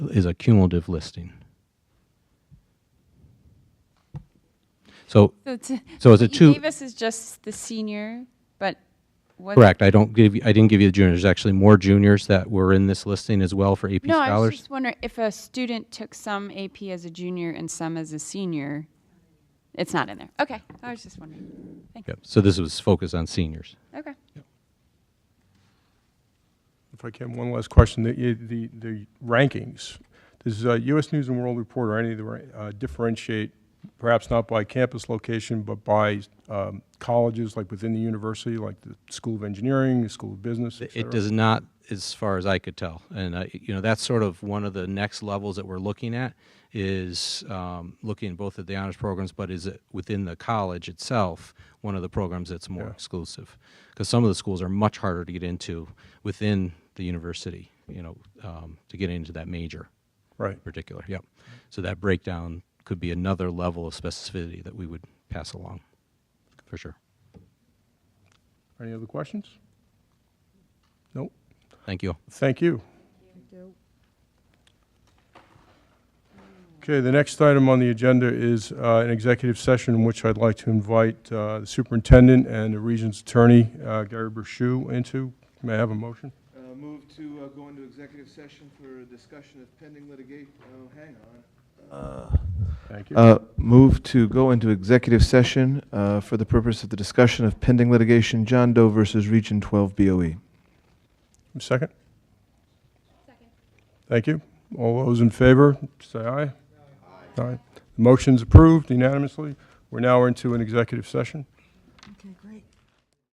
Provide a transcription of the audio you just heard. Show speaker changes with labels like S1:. S1: is a cumulative listing. So,
S2: So it's a-
S1: So is
S2: what
S1: it
S2: you
S1: two-
S2: Gave us is just the senior, but what?
S1: correct, I don't give, you- I didn't give you the juniors, there's actually more juniors that were in this listing as well for AP
S2: No, I was
S1: scholars.
S2: just wondering if a student took some AP as a junior and some as a senior, it's not in there. Okay, I was just wondering. Thank you.
S1: Yep, So this was focused on seniors.
S2: Okay.
S3: If I can, one last question, the, the, the rankings. Does uh, U.S. News and World Report or any of the, ra- uh, differentiate, perhaps not by campus location, but by um, colleges, like within the university, like the School of Engineering, the School of Business, et
S1: It
S3: cetera?
S1: does not, as far as I could tell. And, I- you know, that's sort of one of the next levels that we're looking at, is um, looking both at the honors programs, but is it within the college itself, one of the programs that's more exclusive? Because some of the schools are much harder to get into within the university, you know, um, to get into that major
S3: Right,
S1: in particular, yep. So that breakdown could be another level of specificity that we would pass along, for sure.
S3: any other questions? Nope,
S1: Thank you.
S3: thank you. Okay, the next item on the agenda is uh, an executive session in which I'd like to invite uh, the superintendent and the region's attorney, uh, Gary Burchou, into. May I have a motion?
S4: Uh, Move to uh, go into executive session for discussion of pending litigation, oh, hang on.
S3: Thank you.
S4: Uh, Move to go into executive session uh, for the purpose of the discussion of pending litigation, John Doe versus Region 12 BOE.
S3: Second? Second. Thank you. All those in favor, say aye. Aye. The Motion's approved unanimously. We're now into an executive session.
S5: Okay.